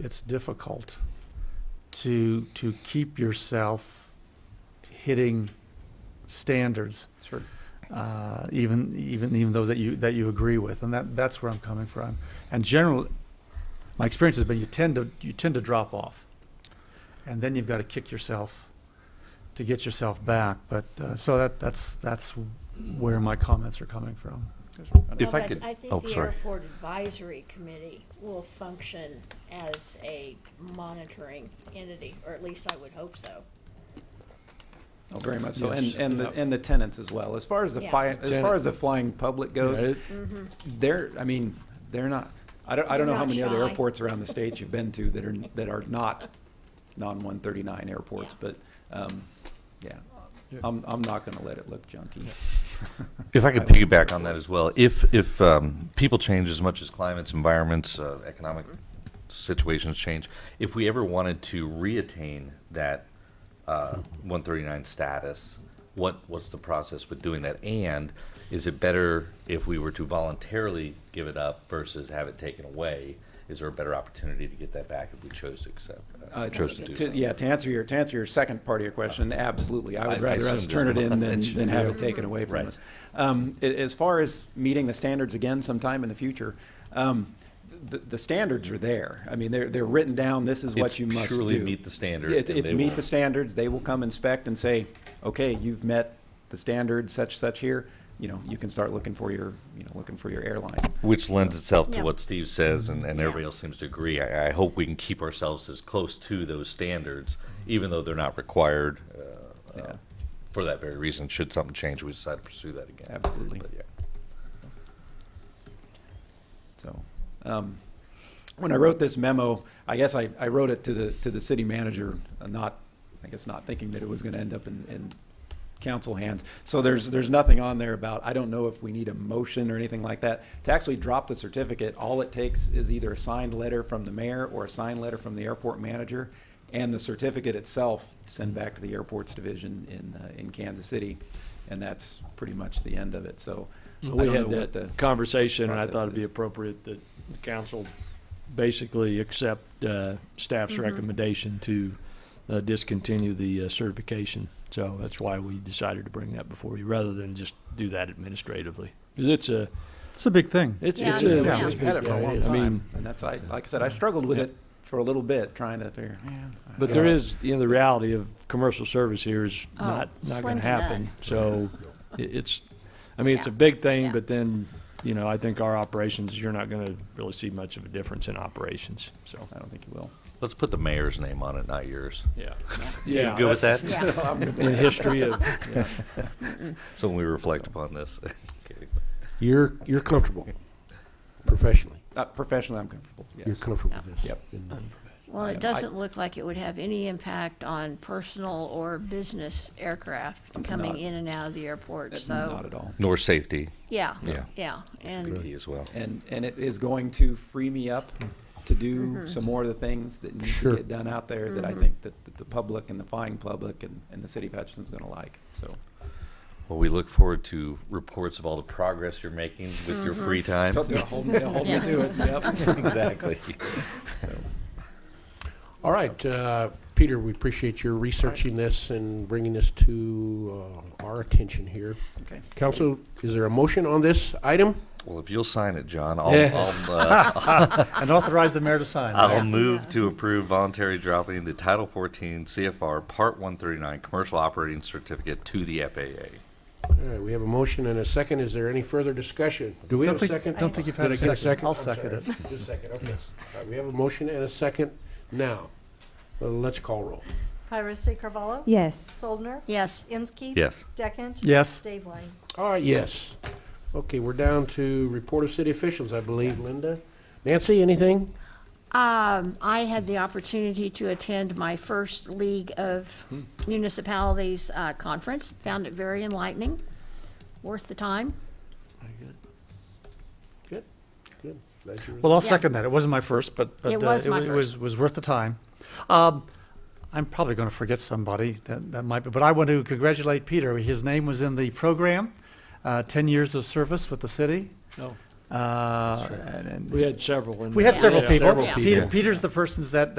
it's difficult to, to keep yourself hitting standards, Sure. uh, even, even, even those that you, that you agree with. And that, that's where I'm coming from. And general, my experience has been you tend to, you tend to drop off. And then you've got to kick yourself to get yourself back. But, uh, so that, that's, that's where my comments are coming from. If Well, I but could- I oh, think the sorry. airport advisory committee will function as a monitoring entity, or at least I would hope so. Oh, very much so, and, Yes. and, the and the tenants as well. As far as the Yeah. fly, as far as the flying public Yeah, goes, it- they're, I mean, they're not, I don't, I don't know how They're not many other shy. airports around the state you've been to that are, that are not non-one thirty-nine airports, but, um, yeah. Yeah. I'm, I'm not gonna let it look junky. If I could piggyback on that as well, if, if um, people change as much as climates, environments, uh, economic situations change, if we ever wanted to reattain that uh, 139 status, what, what's the process with doing that? And is it better if we were to voluntarily give it up versus have it taken away? Is there a better opportunity to get that back if we chose to accept? Uh, chose to do to- that? Yeah, to answer your, to answer your second part of your question, absolutely. I I- I would rather us assumed turn as it in much. than, than have it taken away Right. from us. Um, a- as far as meeting the standards again sometime in the future, um, the, the standards are there. I mean, they're, they're written down. This is what It's you must do. purely meet the standard It's, and it's they meet will- the standards. They will come inspect and say, okay, you've met the standard such, such here. You know, you can start looking for your, you know, looking for your airline. Which lends itself to Yeah. what Steve says, and, and Yeah. everybody else seems to agree. I, I hope we can keep ourselves as close to those standards, even though they're not required uh, Yeah. uh, for that very reason. Should something change, we decide to pursue that again. Absolutely. But, yeah. So, um, when I wrote this memo, I guess I, I wrote it to the, to the city manager, uh, not, I guess not thinking that it was gonna end up in, in council hands. So there's, there's nothing on there about, I don't know if we need a motion or anything like that. To actually drop the certificate, all it takes is either a signed letter from the mayor or a signed letter from the airport manager. And the certificate itself, send back to the airports division in, uh, in Kansas City. And that's pretty much the end of it, so. I We don't had know what the- that conversation, and I thought it'd be process is. appropriate that the council basically accept uh, staff's Mm-hmm. recommendation to uh, discontinue the uh, certification. So that's why we decided to bring that before you, rather than just do that administratively. Because it's a, It's a big thing. it's, Yeah, it's I a. mean, Yeah, we've had it for a long I mean, time, and that's, I, like I said, I struggled with Yeah. it for a little bit, trying to figure, man. I But don't there know. is, you know, the reality of commercial service here is Oh, not, not slim gonna to happen. none. So i- it's, I mean, it's a Yeah. big Yeah. thing, but then, you know, I think our operations, you're not gonna really see much of a difference in operations, so. I don't think you will. Let's put the mayor's name on it, not yours. Yeah. you good with that? Yeah. In history of, yeah. So when we reflect upon this, Kidding. You're, you're comfortable professionally. Uh, professionally, I'm comfortable, You're yes. comfortable with this. Yep. And Well, I- it doesn't look like it would have any impact on personal or business aircraft coming Not- Uh, in and out of the airport, Not so, at all. nor safety, yeah, Yeah. yeah, and, key as well. And, and it is going to free me up to do Mm-hmm. some more of the things that need to Sure. get done out there that I think that that the public and the flying public and, and the city of Hutchinson's gonna like, so. Well, we look forward to reports of all the progress you're making with your Mm-hmm. free time. They'll hold me, they'll hold me Yeah. to it, yep. exactly. All right, uh, Peter, we appreciate your researching this and bringing this to uh, our attention here. Okay. Council, is there a motion on this item? Well, if you'll sign it, John, I'll, Yeah. I'll uh, And authorize the mayor to sign. I'll move to approve voluntary dropping the Title 14 CFR Part 139 Commercial Operating Certificate to the FAA. All right, we have a motion and a second. Is there any further discussion? Do we Don't have a think- second? don't think you've had Did a I get second. I'll I'm sorry. second it. Just a second, okay. All right, we have a motion and a second now. Uh, Let's call roll. Iris Carvalho? Yes. Soldner? yes. Inskeep? Yes. Deckent? Yes. Dave Lang? All right, yes. Okay, we're down to report of city officials, I believe, Linda. Nancy, anything? Um, I had the opportunity to attend my first League of Hmm. Municipalities uh, conference. Found it very enlightening, worth the time. Good, good. Glad you were Well, I'll Yeah. second that. It wasn't my first, but, but It uh, was my wa- first. was, was worth the time. Um, I'm probably going to forget somebody that, that might be, but I want to congratulate Peter. His name was in the program, uh, 10 years of service with the city. Oh. Uh, and, and We had several in we there. had several Yeah. people. Several Peter, people. Peter's the persons that,